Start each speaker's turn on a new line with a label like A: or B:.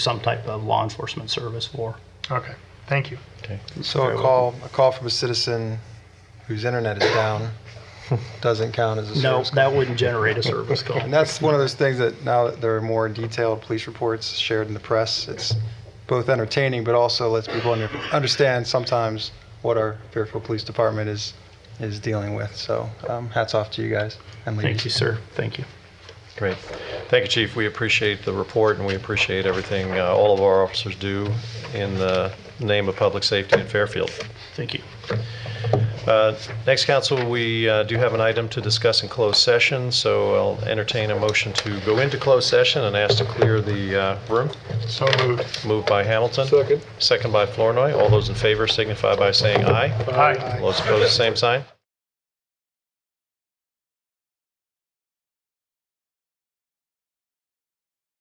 A: some type of law enforcement service for.
B: Okay, thank you.
C: So a call, a call from a citizen whose internet is down doesn't count as a
A: No,
C: service call.
A: that wouldn't generate a service call.
C: And that's one of those things that now that there are more detailed police reports shared in the press, it's both entertaining, but also lets people under, understand sometimes what our Fairfield Police Department is, is dealing with. So um, hats off to you guys and ladies.
A: Thank you, sir. Thank you.
D: Great. Thank you, Chief. We appreciate the report and we appreciate everything uh, all of our officers do in the name of public safety in Fairfield.
A: Thank you.
D: Uh, Next, council, we uh, do have an item to discuss in closed session, so I'll entertain a motion to go into closed session and ask to clear the uh, room.
B: So moved.
D: Moved by Hamilton. Second. Second by Flournoy. All those in favor signify by saying aye.
B: Aye.
D: All those opposed, same sign.